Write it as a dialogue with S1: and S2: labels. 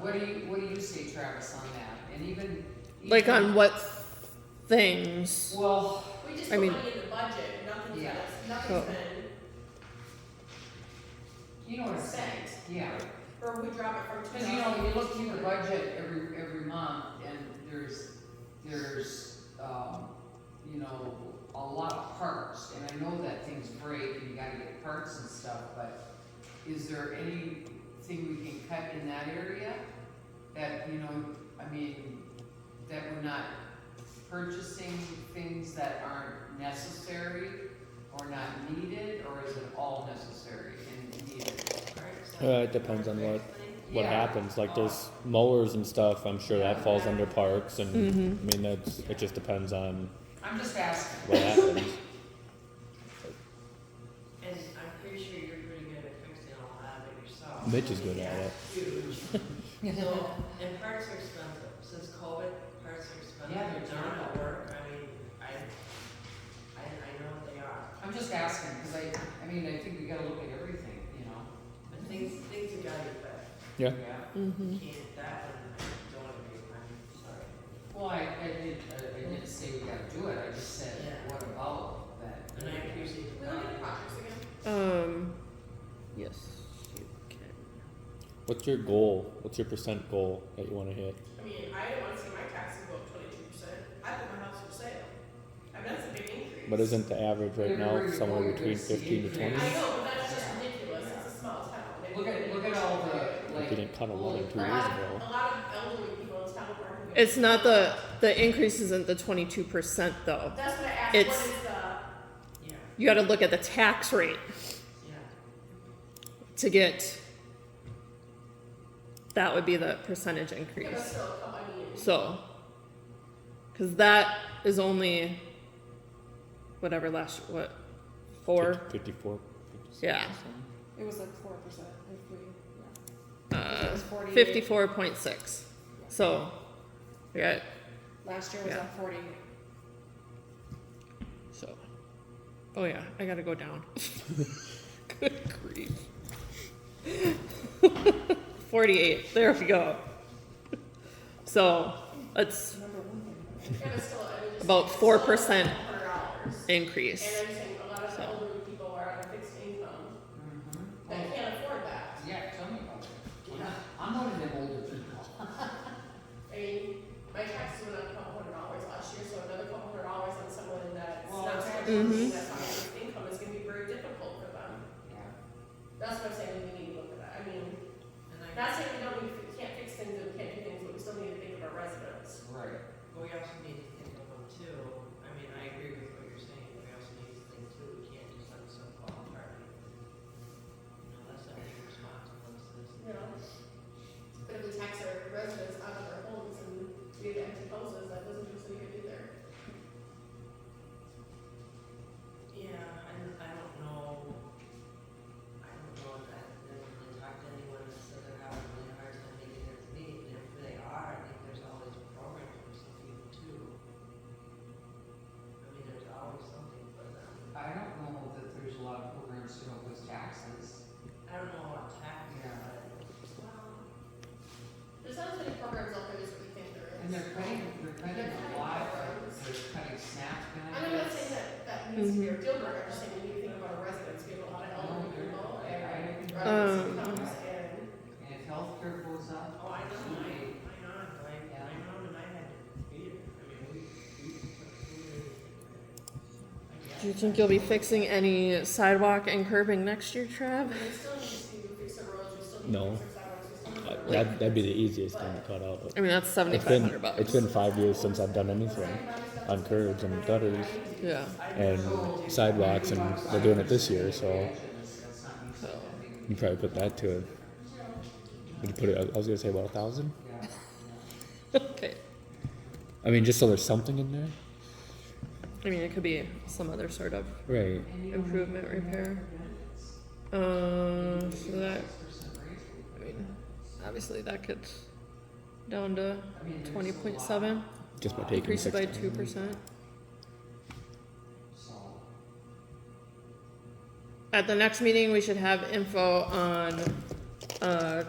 S1: what do you, what do you see Travis on that? And even.
S2: Like
S1: even-
S2: on what things?
S1: Well,
S3: We just
S2: I
S3: put
S2: mean-
S3: money in the budget, nothing's
S1: Yeah.
S3: been,
S2: Oh.
S3: nothing's been
S1: you know what I'm saying,
S3: spent,
S1: yeah.
S3: or we drop it from two
S1: Cause you know, you look through the budget every, every month and there's, there's, um, you know, a lot of parts. And I know that things break and you gotta get parts and stuff, but is there anything we can cut in that area? That, you know, I mean, that we're not purchasing things that aren't necessary or not needed, or is it all necessary and needed?
S3: thousand.
S4: Uh, it depends on what what
S1: Yeah.
S4: happens. Like there's mowers and stuff. I'm sure that falls under parks, and
S2: Mhm.
S4: I mean that's it. Just depends on
S1: I'm just asking.
S4: what happens.
S5: And I'm pretty sure you're pretty good at fixing all that of yourself.
S4: Mitch is good at it.
S5: Huge. So, and parts are expensive, since COVID, parts are expensive.
S1: Yeah, they're
S5: They're not
S1: terrible.
S5: work, I mean, I, I, I know they are,
S1: I'm just asking, because I, I mean, I think we gotta look at everything, you know?
S5: but things, things have gotta get better.
S4: Yeah.
S2: Mm-hmm.
S5: You can't, that one, I don't agree with, I'm sorry.
S1: Well, I, I did, I I didn't say we gotta do it, I just said,
S5: Yeah.
S1: what about that?
S5: And I appreciate
S3: We
S5: the.
S3: look at the projects again.
S2: Um, yes, you can.
S4: What's your goal? What's your percent goal that you want to hit?
S3: I mean, I don't wanna see my taxes go up twenty-two percent, I put my house for sale, I mean, that's a big increase.
S4: But isn't the average right now somewhere between fifteen to
S3: I
S4: twenty?
S3: know, but that's just
S1: Yeah.
S3: ridiculous,
S1: Yeah.
S3: it's a small town. They
S1: Look at,
S3: really
S1: look at
S3: don't
S1: all
S3: do it.
S1: the,
S4: Like
S1: like.
S4: you didn't cut a lot in two
S3: A
S4: years
S3: lot,
S4: ago.
S3: of- a lot of elderly people in town are. who-
S2: It's not the the increase isn't the twenty two percent though.
S3: That's what I asked, what
S2: it's-
S3: is the?
S5: Yeah,
S2: You got to look at the tax rate
S5: yeah,
S2: to get. That would be the percentage
S3: Yeah, but
S2: increase.
S3: still, come on, I mean,
S2: So, because that is only whatever last what four
S4: Fifty-four. 56
S2: Yeah.
S4: percent.
S6: It was like four percent if we, yeah. It
S2: uh,
S6: was forty.
S2: fifty four point six. So, we got
S6: Last year was
S2: yeah.
S6: at forty.
S2: So, oh yeah, I gotta go down. Good grief. 48. There we go. So, that's
S3: yeah, but still, I mean, just-
S2: About
S3: it's
S2: 4%.
S3: still a hundred dollars. And
S2: increase.
S3: I'm saying a lot of
S2: So.
S3: elderly people are on a fixed income
S1: Mhm.
S3: that
S1: Well,
S3: can't afford that.
S1: Yeah, tell me about it. I'm one of them older people.
S3: I mean, my taxes went up a couple hundred dollars last year, so another couple hundred dollars on someone that's
S1: Well,
S3: not
S1: that's-
S3: working, that's on a fixed income is gonna be very difficult for them.
S1: Yeah.
S3: That's what I'm saying, we need to look at that. I mean,
S5: and I,
S3: not saying we don't, we can't fix things and we can't do things, but we still need to think of our residents.
S1: Right.
S5: but we also need to think of them too, I mean, I agree with what you're saying, but we also need to think too, we can't just let some fall apart. You know, that's not being responsible, it's this.
S3: you know? But if we tax our residents out of their homes and we have empty houses, that doesn't do so good either.
S5: Yeah, and I don't know, I don't know if I've never really talked to anyone that said they're having a really hard time making ends meet, and if they are, I think there's always a program for some people too. I mean, there's always something for them,
S1: I don't know that there's a lot of programs to help with taxes.
S5: I don't know about tax,
S1: Yeah.
S5: but.
S3: There's not as many programs out there as we think there
S1: And
S3: is.
S1: they're cutting, they're cutting a lot, like, they're cutting SNAP
S3: And I'm not
S1: benefits.
S3: saying that that needs to be a deal breaker, I'm just saying we need to think about our residents, we have a lot of elderly people and residents
S2: Um.
S3: incomes and.
S1: And if healthcare goes up,
S5: Oh, I know, my, my aunt, I,
S1: Yeah.
S5: my mom and I had to feed her, I mean, we, we put food in. I guess.
S2: Do you think you'll be fixing any sidewalk and curbing next year, Trav?
S3: We still need to fix the roads, we still need
S4: No.
S3: to fix our sidewalks, we still need to.
S4: Uh, That that'd be the easiest thing to cut out.
S2: I mean, that's
S4: But it's
S2: 7500
S4: been
S2: bucks.
S4: it's been five years since I've done anything on curbs and gutters
S2: yeah.
S4: and sidewalks, and we're doing it this year. So you probably put that to it. Would you put it? I was gonna say about a thousand.
S2: Okay.
S4: I mean, just so there's something in there,
S2: I mean, it could be some other sort of
S4: right?
S2: improvement repair. Um, so that, I mean, obviously that gets down to 20.7,
S4: Just by taking
S2: decreased
S4: six.
S2: by 2%. At the next meeting, we should have info on, uh,